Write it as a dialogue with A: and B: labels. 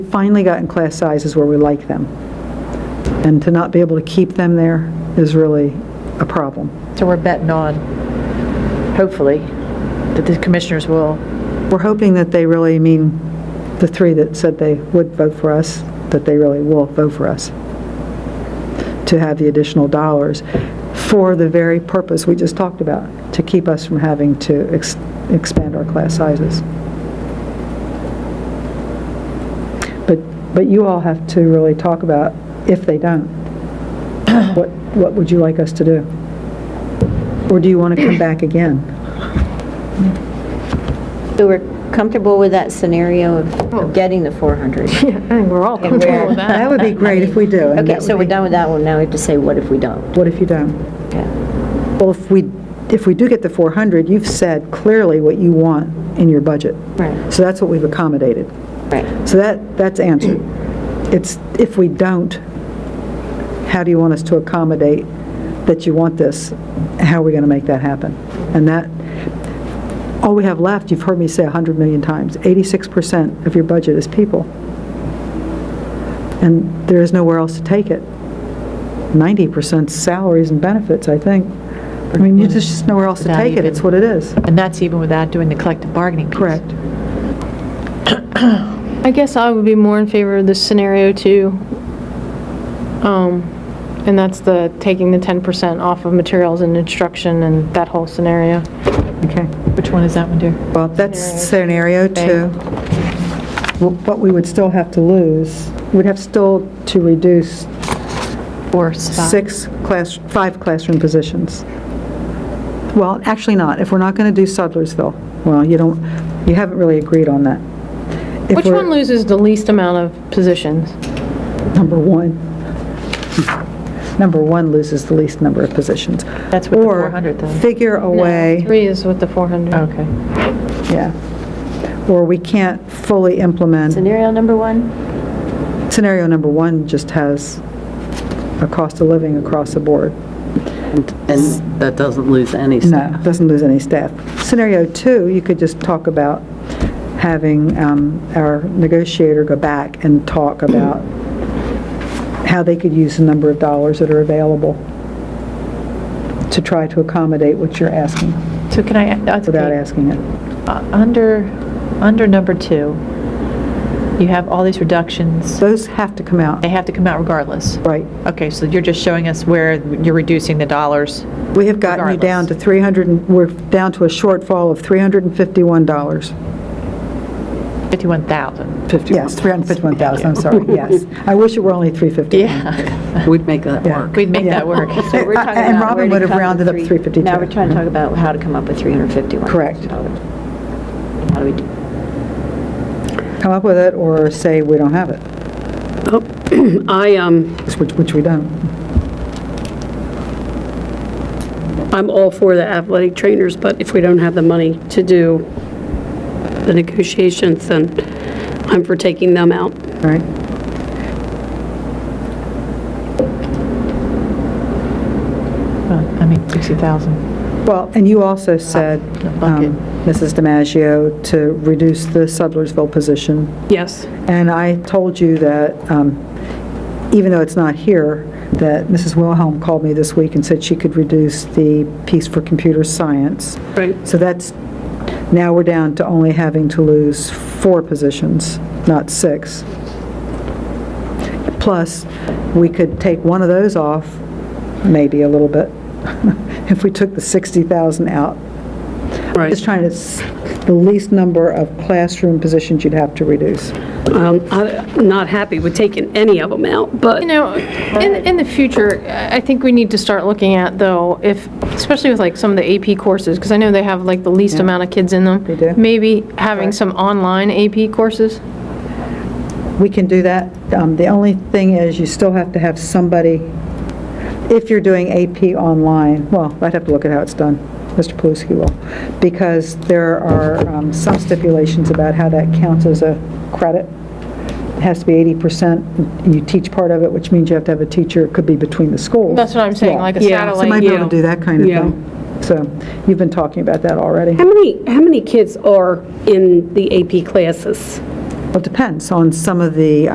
A: finally gotten class sizes where we like them. And to not be able to keep them there is really a problem.
B: So we're betting on, hopefully, that the commissioners will,
A: We're hoping that they really mean, the three that said they would vote for us, that they really will vote for us, to have the additional dollars for the very purpose we just talked about, to keep us from having to ex- expand our class sizes. But, but you all have to really talk about, if they don't, what, what would you like us to do? Or do you want to come back again?
C: So we're comfortable with that scenario of- of getting the 400?
D: Oh. Yeah, I think we're all
C: And
D: comfortable
C: where-
D: with that.
A: That would be great if we do. and
C: Okay,
A: that
C: so
A: would
C: we're
A: be-
C: done with that one, now we have to say, what if we don't?
A: What if you don't?
C: Okay.
A: Well, if we, if we do get the 400, you've said clearly what you want in your budget.
C: Right.
A: So that's what we've accommodated.
C: Right.
A: So that, that's answered. It's, if we don't, how do you want us to accommodate that you want this? How are we going to make that happen? And that, all we have left, you've heard me say 100 million times, 86% of your budget is people. And there is nowhere else to take it. 90% salaries and benefits, I think. I mean, you just just nowhere else to
B: Without
A: take it,
B: even-
A: it's what it is.
B: and that's even without doing the collective bargaining piece.
A: Correct.
D: I guess I would be more in favor of this scenario too. Um, And that's the taking the 10% off of materials and instruction and that whole scenario.
A: Okay.
B: Which one is that one, dear?
A: Well, that's scenario two. What we would still have to lose, we'd have still to reduce
B: Four, five?
A: six class, five classroom positions. Well, actually not, if we're not going to do Sudlersville, well, you don't, you haven't really agreed on that. If
D: Which
A: we're-
D: one loses the least amount of positions?
A: Number one. Number one loses the least number of positions.
B: That's with the 400 though.
A: Or figure a way.
D: No, Three is with the 400.
B: Okay.
A: Yeah. Or we can't fully implement.
C: Scenario number one?
A: Scenario number one just has a cost of living across the board.
E: And that doesn't lose any
A: No,
E: staff.
A: doesn't lose any staff. Scenario two, you could just talk about having um, our negotiator go back and talk about how they could use the number of dollars that are available to try to accommodate what you're asking,
B: So can I, that's
A: without
B: okay.
A: asking it.
B: Uh, Under, under number two, you have all these reductions.
A: Those have to come out,
B: They have to come out regardless.
A: right.
B: Okay, so you're just showing us where you're reducing the dollars.
A: We have gotten you down to 300, and- we're down to a shortfall of $351.
B: 51,000.
A: Yes, 351,000, I'm sorry, yes. I wish it were only 350.
B: Yeah.
E: We'd make that
A: Yeah.
E: work.
B: We'd make that work.
C: So we're talking
A: And
C: about
A: Robin
C: where to
A: would have
C: come with
A: rounded up
C: three-
A: 352.
C: Now we're trying to talk about how to come up with 351.
A: Correct.
C: How do we do?
A: Come up with it or say we don't have it,
F: I, um,
A: which, which we don't.
F: I'm all for the athletic trainers, but if we don't have the money to do the negotiations, then I'm for taking them out.
A: All right,
B: I mean, 60,000.
A: well, and you also said,
C: Ah,
B: The bucket.
A: um, Mrs. DiMaggio, to reduce the Sudlersville position,
F: Yes.
A: and I told you that, um, even though it's not here, that Mrs. Wilhelm called me this week and said she could reduce the piece for computer science.
F: Right.
A: So that's, now we're down to only having to lose four positions, not six. Plus, we could take one of those off, maybe a little bit, if we took the 60,000 out.
F: Right.
A: Just trying to, s- the least number of classroom positions you'd have to reduce.
F: Um, I'm not happy with taking any of them out, but
D: You know, in, in the future, I think we need to start looking at, though, if, especially with like some of the AP courses, because I know they have like the least amount of kids in them.
A: They do.
D: Maybe having some online AP courses.
A: We can do that. Um, The only thing is, you still have to have somebody, if you're doing AP online, well, I'd have to look at how it's done. Mr. Paluski will, because there are um, some stipulations about how that counts as a credit. It has to be 80%. You teach part of it, which means you have to have a teacher, it could be between the schools.
D: That's what I'm saying,
A: Yeah.
D: like a
F: Yeah,
A: So you might
D: satellite.
A: be able to do that kind of
F: Yeah.
A: thing. So you've been talking about that already.
F: how many, how many kids are in the AP classes?
A: Well, it depends on some of the